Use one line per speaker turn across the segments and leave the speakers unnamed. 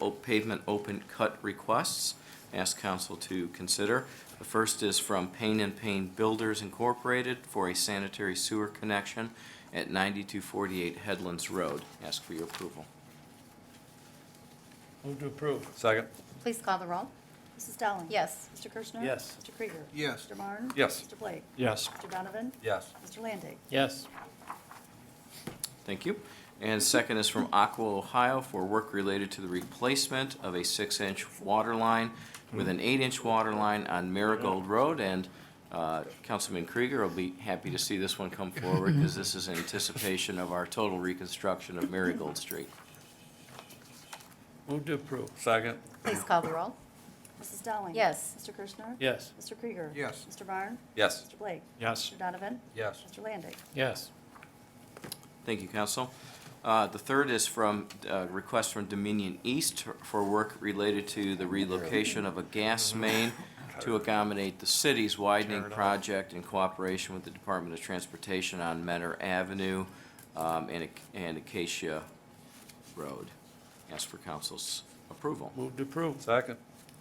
o- pavement open cut requests. Ask council to consider. The first is from Payne and Payne Builders Incorporated for a sanitary sewer connection at 9248 Headlands Road. Ask for your approval.
Move to approve.
Second.
Please call the roll.
Mrs. Dowling?
Yes.
Mr. Kirschner?
Yes.
Mr. Krieger?
Yes.
Mr. Marne?
Yes.
Mr. Blake?
Yes.
Mr. Donovan?
Yes.
Mr. Landig?
Yes.
Thank you. And second is from Aqua Ohio for work related to the replacement of a six-inch water line with an eight-inch water line on Marigold Road. And uh, Councilman Krieger will be happy to see this one come forward because this is in anticipation of our total reconstruction of Marigold Street.
Move to approve.
Second.
Please call the roll.
Mrs. Dowling?
Yes.
Mr. Kirschner?
Yes.
Mr. Krieger?
Yes.
Mr. Marne?
Yes.
Mr. Blake?
Yes.
Mr. Donovan?
Yes.
Mr. Landig?
Yes.
Thank you, Council. Uh, The third is from, uh, request from Dominion East for work related to the relocation of a gas main to accommodate the city's widening project in cooperation with the Department of Transportation on Menor Avenue um, and Ac- and Acacia Road. Ask for council's approval.
Move to approve.
Second.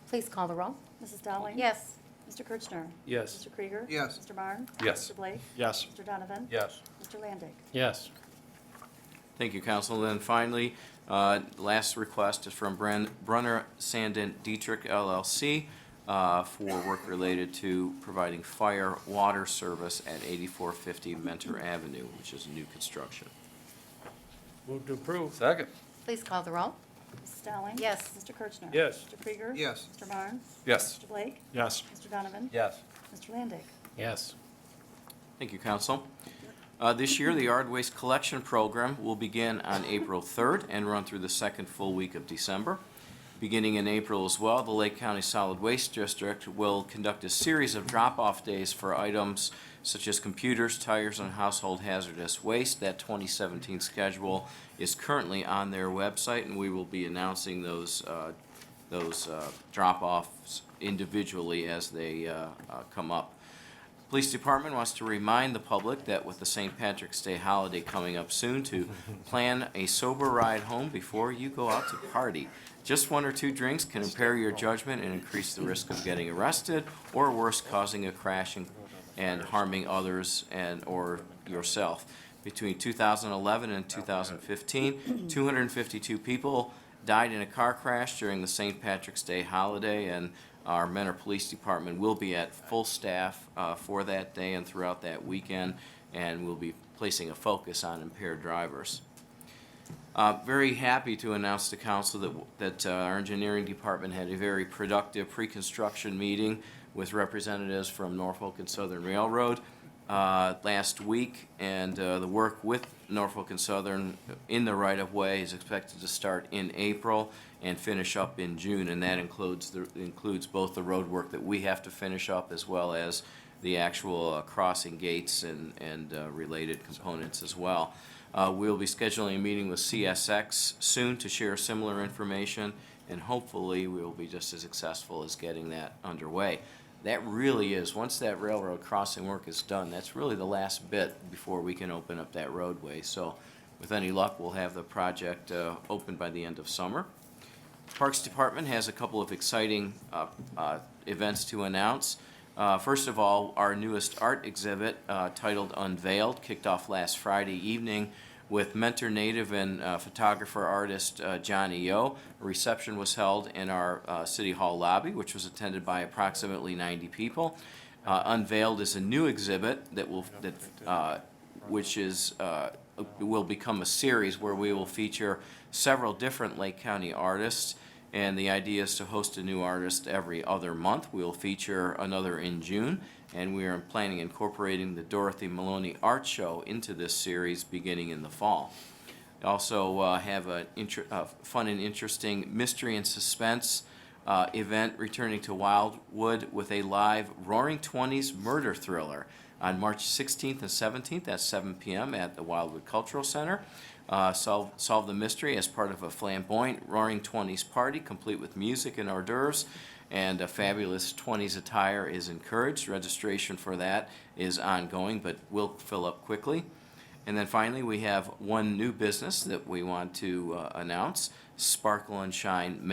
Please call the roll.
Mrs. Dowling?
Yes.
Mr. Kirschner?
Yes.
Mr. Krieger?
Yes.
Mr. Marne?
Yes.
Mr. Blake?
Yes.
Mr. Donovan?
Yes.
Mr. Landig?
Yes.
Thank you, Council. And finally, uh, last request is from Bren- Brunner Sandin Dietrich LLC uh, for work related to providing fire water service at 8450 Mentor Avenue, which is new construction.
Move to approve.
Second.
Please call the roll.
Mrs. Dowling?
Yes.
Mr. Kirschner?
Yes.
Mr. Krieger?
Yes.
Mr. Marne?
Yes.
Mr. Blake?
Yes.
Mr. Donovan?
Yes.
Mr. Landig?
Yes.
Thank you, Council. Uh, This year, the yard waste collection program will begin on April 3rd and run through the second full week of December. Beginning in April as well, the Lake County Solid Waste District will conduct a series of drop-off days for items such as computers, tires, and household hazardous waste. That 2017 schedule is currently on their website, and we will be announcing those, uh, those uh, drop-offs individually as they uh, uh, come up. Police Department wants to remind the public that with the St. Patrick's Day holiday coming up soon, to plan a sober ride home before you go out to party. Just one or two drinks can impair your judgment and increase the risk of getting arrested, or worse, causing a crash and, and harming others and, or yourself. Between 2011 and 2015, 252 people died in a car crash during the St. Patrick's Day holiday, and our Mentor Police Department will be at full staff uh, for that day and throughout that weekend, and we'll be placing a focus on impaired drivers. Uh, Very happy to announce to council that, that uh, our engineering department had a very productive pre-construction meeting with representatives from Norfolk and Southern Railroad uh, last week, and uh, the work with Norfolk and Southern in the right-of-way is expected to start in April and finish up in June, and that includes, the- includes both the road work that we have to finish up as well as the actual uh, crossing gates and, and uh, related components as well. Uh, We'll be scheduling a meeting with CSX soon to share similar information, and hopefully, we will be just as successful as getting that underway. That really is, once that railroad crossing work is done, that's really the last bit before we can open up that roadway. So with any luck, we'll have the project uh, open by the end of summer. Parks Department has a couple of exciting uh, uh, events to announce. Uh, First of all, our newest art exhibit uh, titled Unveiled kicked off last Friday evening with mentor native and uh, photographer artist uh, Johnny Yo. A reception was held in our uh, City Hall lobby, which was attended by approximately 90 people. Uh, Unveiled is a new exhibit that will, that uh, which is, uh, will become a series where we will feature several different Lake County artists. And the idea is to host a new artist every other month. We'll feature another in June. And we are planning incorporating the Dorothy Maloney Art Show into this series beginning in the fall. Also uh, have a inter- uh, fun and interesting mystery and suspense uh, event returning to Wildwood with a live Roaring Twenties murder thriller on March 16th and 17th at 7 p.m. at the Wildwood Cultural Center. Uh, solve, solve the mystery as part of a flamboyant Roaring Twenties party, complete with music and hors d'oeuvres, and a fabulous 20s attire is encouraged. Registration for that is ongoing, but will fill up quickly. And then finally, we have one new business that we want to uh, announce, Sparkle and Shine